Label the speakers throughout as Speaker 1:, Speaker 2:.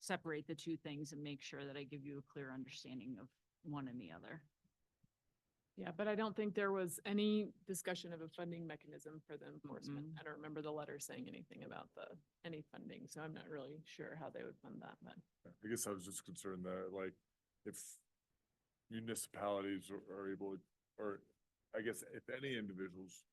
Speaker 1: separate the two things and make sure that I give you a clear understanding of one and the other.
Speaker 2: Yeah, but I don't think there was any discussion of a funding mechanism for the enforcement.
Speaker 1: Mm-mm.
Speaker 2: I don't remember the letter saying anything about the, any funding, so I'm not really sure how they would fund that, but.
Speaker 3: I guess I was just concerned that like if municipalities are- are able, or I guess if any individuals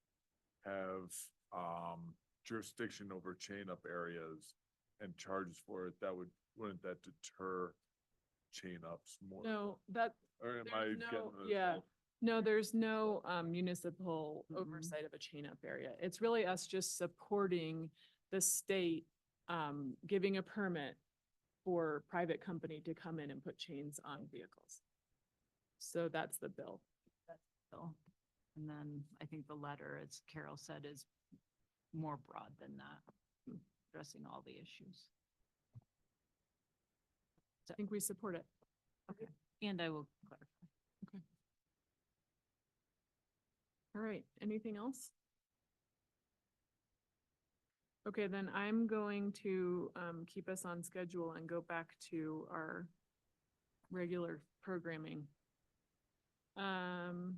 Speaker 3: have um jurisdiction over chain up areas and charges for it, that would, wouldn't that deter chain ups more?
Speaker 2: No, that,
Speaker 3: Or am
Speaker 2: there's
Speaker 3: I
Speaker 2: no-
Speaker 3: getting? this
Speaker 2: yeah.
Speaker 3: all-
Speaker 2: no, there's no um, municipal
Speaker 1: Mhm.
Speaker 2: oversight of a chain up area. It's really us just supporting the state, um, giving a permit for private company to come in and put chains on vehicles. So that's the bill.
Speaker 1: So, and then I think the letter, as Carol said, is more broad than that, addressing all the issues.
Speaker 2: I think we support it.
Speaker 1: And I will clarify.
Speaker 2: All right, anything else? Okay, then I'm going to um keep us on schedule and go back to our regular programming. Um.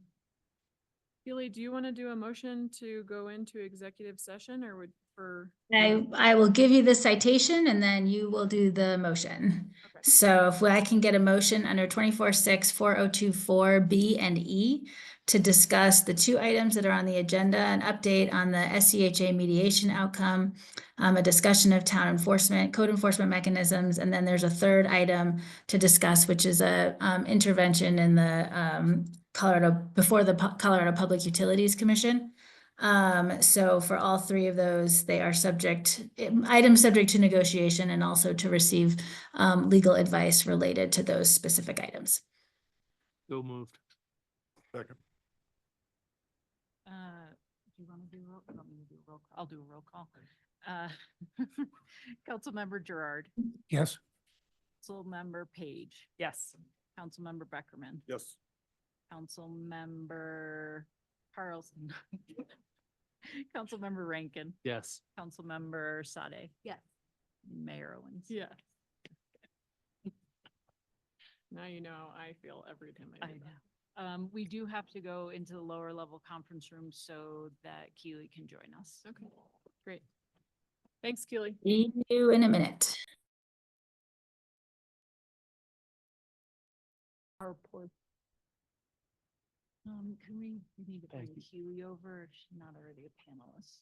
Speaker 2: Keely, do you want to do a motion to go into executive session or would for?
Speaker 4: I, I will give you the citation and then you will do the motion.
Speaker 2: Okay.
Speaker 4: So if I can get a motion under twenty-four six four oh two four B and E to discuss the two items that are on the agenda, an update on the SCHA mediation outcome, um, a discussion of town enforcement, code enforcement mechanisms, and then there's a third item to discuss, which is a, um, intervention in the, um, Colorado, before the Pu- Colorado Public Utilities Commission. Um, so for all three of those, they are subject, items subject to negotiation and also to receive um, legal advice related to those specific items.
Speaker 5: So moved.
Speaker 3: Second.
Speaker 1: Uh, Do you want to do, roll- you want me to do a roll? call? I'll do a roll call. Uh, Councilmember Gerard,
Speaker 5: Yes.
Speaker 1: Councilmember Page,
Speaker 2: Yes.
Speaker 1: Councilmember Beckerman,
Speaker 3: Yes.
Speaker 1: Councilmember Carlson, Councilmember Rankin,
Speaker 5: Yes.
Speaker 1: Councilmember Sade. Yes. Mayor Owens.
Speaker 2: Yeah. Now you know I feel every time I
Speaker 1: I
Speaker 2: do
Speaker 1: know.
Speaker 2: that.
Speaker 1: Um, we do have to go into the lower level conference room so that Keely can join us.
Speaker 2: Okay, great. Thanks, Keely.
Speaker 4: See you in a minute.
Speaker 1: Our poor. Um, can we, we need to bring
Speaker 5: Thank you.
Speaker 1: Keely over, if she's not already a panelist.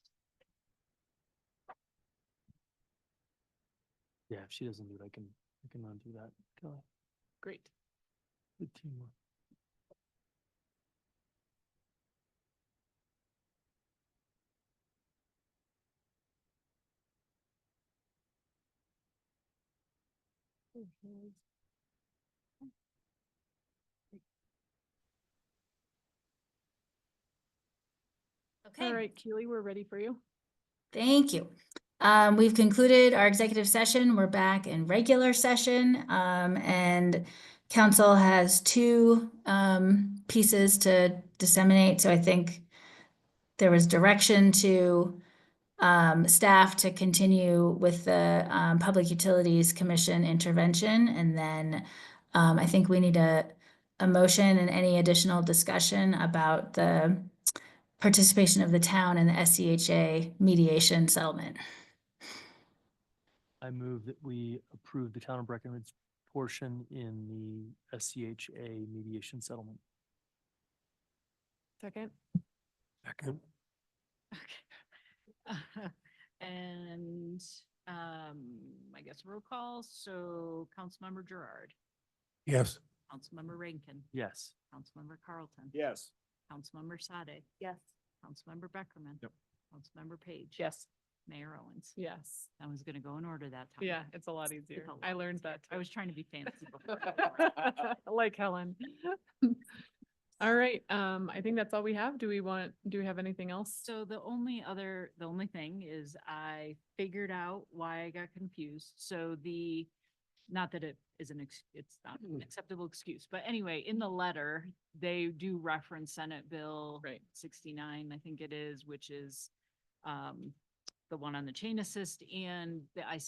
Speaker 5: Yeah, if she doesn't do it, I can, I can undo that. Kelly,
Speaker 2: Great.
Speaker 5: Good teamwork.
Speaker 2: All right, Keely, we're ready for you.
Speaker 4: Thank you. Um, we've concluded our executive session. We're back in regular session. Um, and council has two, um, pieces to disseminate. So I think there was direction to, um, staff to continue with the, um, Public Utilities Commission intervention. And then, um, I think we need a, a motion and any additional discussion about the, participation of the town in the SCHA mediation settlement.
Speaker 5: I move that we approve the town of Breckenridge portion in the SCHA mediation settlement.
Speaker 2: Second?
Speaker 5: Second.
Speaker 1: Okay. And, um, I guess roll call, so Councilmember Gerard,
Speaker 5: Yes.
Speaker 1: Councilmember Rankin,
Speaker 5: Yes.
Speaker 1: Councilmember Carlton.
Speaker 3: Yes.
Speaker 1: Councilmember Sade.
Speaker 2: Yes.
Speaker 1: Councilmember Beckerman.
Speaker 3: Yep.
Speaker 1: Councilmember Page.
Speaker 2: Yes.
Speaker 1: Mayor Owens.
Speaker 2: Yes.
Speaker 1: I was gonna go in order that time.
Speaker 2: Yeah, it's a lot easier. I learned that.
Speaker 1: I
Speaker 2: too.
Speaker 1: was trying to be fancy before.
Speaker 2: Like Helen. All right, um, I think that's all we have. Do we want, do we have anything else?
Speaker 1: So the only other, the only thing is I figured out why I got confused. So the, not that it is an, ex- it's not an acceptable excuse, but anyway, in the letter, they do reference Senate Bill
Speaker 2: Right.
Speaker 1: sixty-nine, I think it is, which is um, the one on the chain assist and the IC